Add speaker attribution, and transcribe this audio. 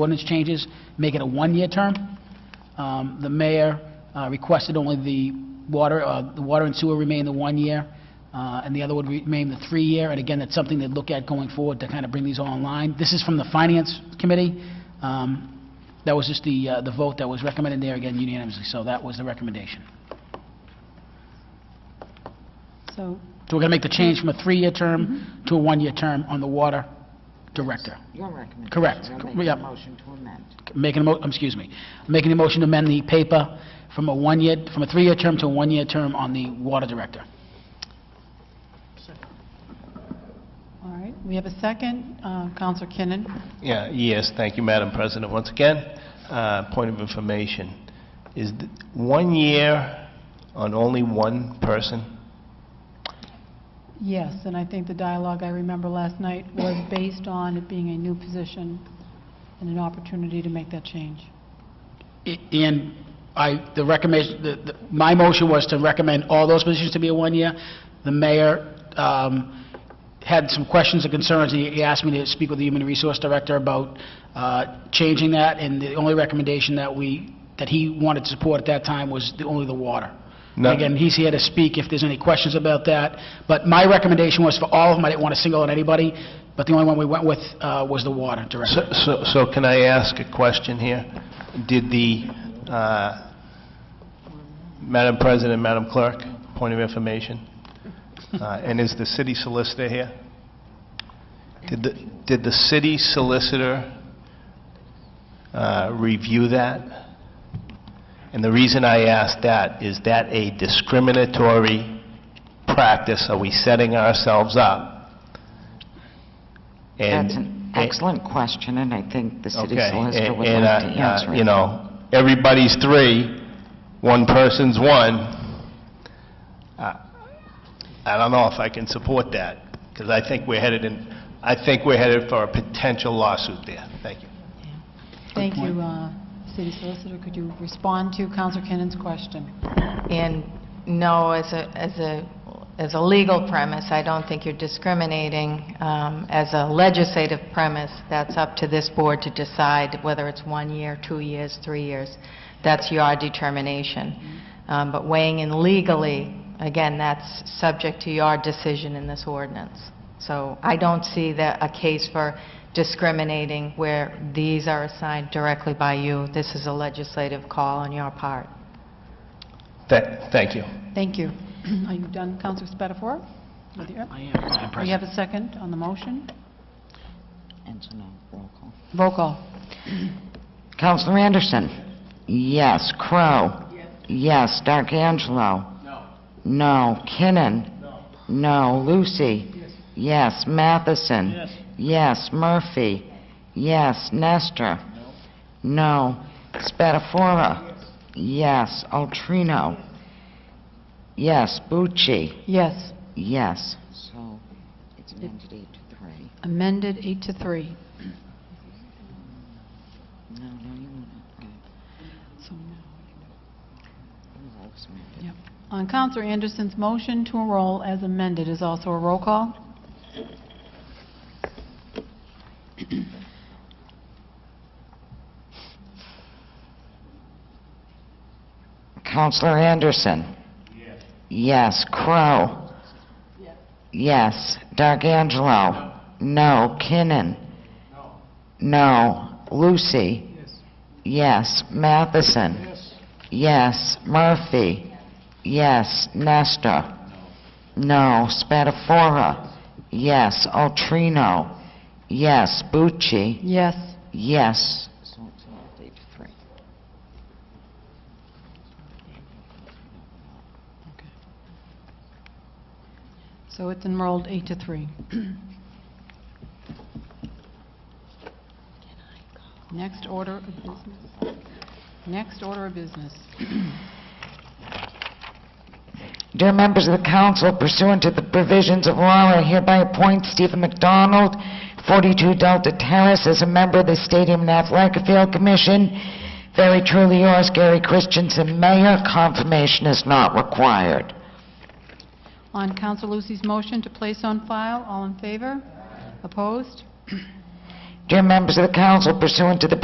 Speaker 1: ordinance changes, make it a one-year term. Um, The mayor uh, requested only the water, uh, the water and sewer remain the one year, uh, and the other would remain the three-year, and again, that's something they'd look at going forward to kind of bring these all online. This is from the Finance Committee. Um, That was just the, uh, the vote that was recommended there, again unanimously, so that was the recommendation.
Speaker 2: So,
Speaker 1: So we're going to make the change from a three-year term to a one-year term on the water director.
Speaker 3: Your recommendation.
Speaker 1: Correct.
Speaker 3: We'll make
Speaker 1: Yep.
Speaker 3: a motion to amend.
Speaker 1: making a mo, um, excuse me, making a motion to amend the paper from a one-year, from a three-year term to a one-year term on the water director.
Speaker 2: all right, we have a second, Uh, Counselor Kinnon.
Speaker 4: Yeah, yes, thank you, Madam President. Once again, uh, point of information, is th- one year on only one person?
Speaker 2: Yes, and I think the dialogue I remember last night was based on it being a new position and an opportunity to make that change.
Speaker 1: I- And I, the recommendation, the- the- my motion was to recommend all those positions to be a one-year. The mayor um, had some questions and concerns, and he asked me to speak with the Human Resource Director about uh, changing that, and the only recommendation that we, that he wanted to support at that time was the- only the water.
Speaker 4: No.
Speaker 1: Again, he's here to speak if there's any questions about that, but my recommendation was for all of them, I didn't want to single out anybody, but the only one we went with uh, was the water director.
Speaker 4: So- So so can I ask a question here? Did the, uh, Madam President, Madam Clerk, point of information, Uh, and is the city solicitor here? Did the did the city solicitor uh, review that? And the reason I ask that, is that a discriminatory practice? Are we setting ourselves up? And-
Speaker 3: That's an excellent question, and I think the city
Speaker 4: Okay,
Speaker 3: solicitor
Speaker 4: and-
Speaker 3: would
Speaker 4: and,
Speaker 3: like
Speaker 4: uh,
Speaker 3: to
Speaker 4: uh,
Speaker 3: answer it.
Speaker 4: You know, everybody's three, one person's one. I I don't know if I can support that, because I think we're headed in, I think we're headed for a potential lawsuit there. Thank you.
Speaker 2: Thank you, uh, City Solicitor, could you respond to Counselor Kinnon's question?
Speaker 5: And no, as a, as a, as a legal premise, I don't think you're discriminating. Um, As a legislative premise, that's up to this board to decide whether it's one year, two years, three years. That's your determination. Um, But weighing in legally, again, that's subject to your decision in this ordinance. So I don't see that, a case for discriminating where these are assigned directly by you. This is a legislative call on your part.
Speaker 4: Tha- Thank you.
Speaker 2: Thank you. Are you done, Counselor Spatafora? With your-
Speaker 1: I am, Madam
Speaker 2: We
Speaker 1: President.
Speaker 2: have a second on the motion?
Speaker 3: And so now, roll call.
Speaker 2: Roll call.
Speaker 3: Counselor Anderson? Yes. Crow. Yes. D'Angelo? No. No. Kinnon? No. Lucy? Yes. Matheson? Yes. Murphy? Yes. Nestor? No. Spatafora? Yes. Altrino? Yes. Bucci?
Speaker 2: Yes,
Speaker 3: Yes. So it's amended eight to three.
Speaker 2: amended eight to three.
Speaker 3: No, no, you want to,
Speaker 2: So,
Speaker 3: it was amended.
Speaker 2: yep. On Counselor Anderson's motion to enroll as amended is also a roll call?
Speaker 3: Counselor Anderson? Yes. Crow? Yes. D'Angelo? No. Kinnon? No. Lucy? Yes. Matheson? Yes. Murphy? Yes. Nestor? No. Spatafora? Yes. Altrino? Yes. Bucci?
Speaker 2: Yes.
Speaker 3: Yes. So it's all eight to three.
Speaker 2: So it's enrolled eight to three. Next order of business. Next order of business.
Speaker 3: Dear members of the council, pursuant to the provisions of law, I hereby appoint Stephen McDonald, 42 Delta Terrace, as a member of the Stadium and Athletic Field Commission. Very truly yours, Gary Christensen, Mayor. Confirmation is not required.
Speaker 2: On Counsel Lucy's motion to place on file, all in favor? Opposed?
Speaker 3: Dear members of the council, pursuant to the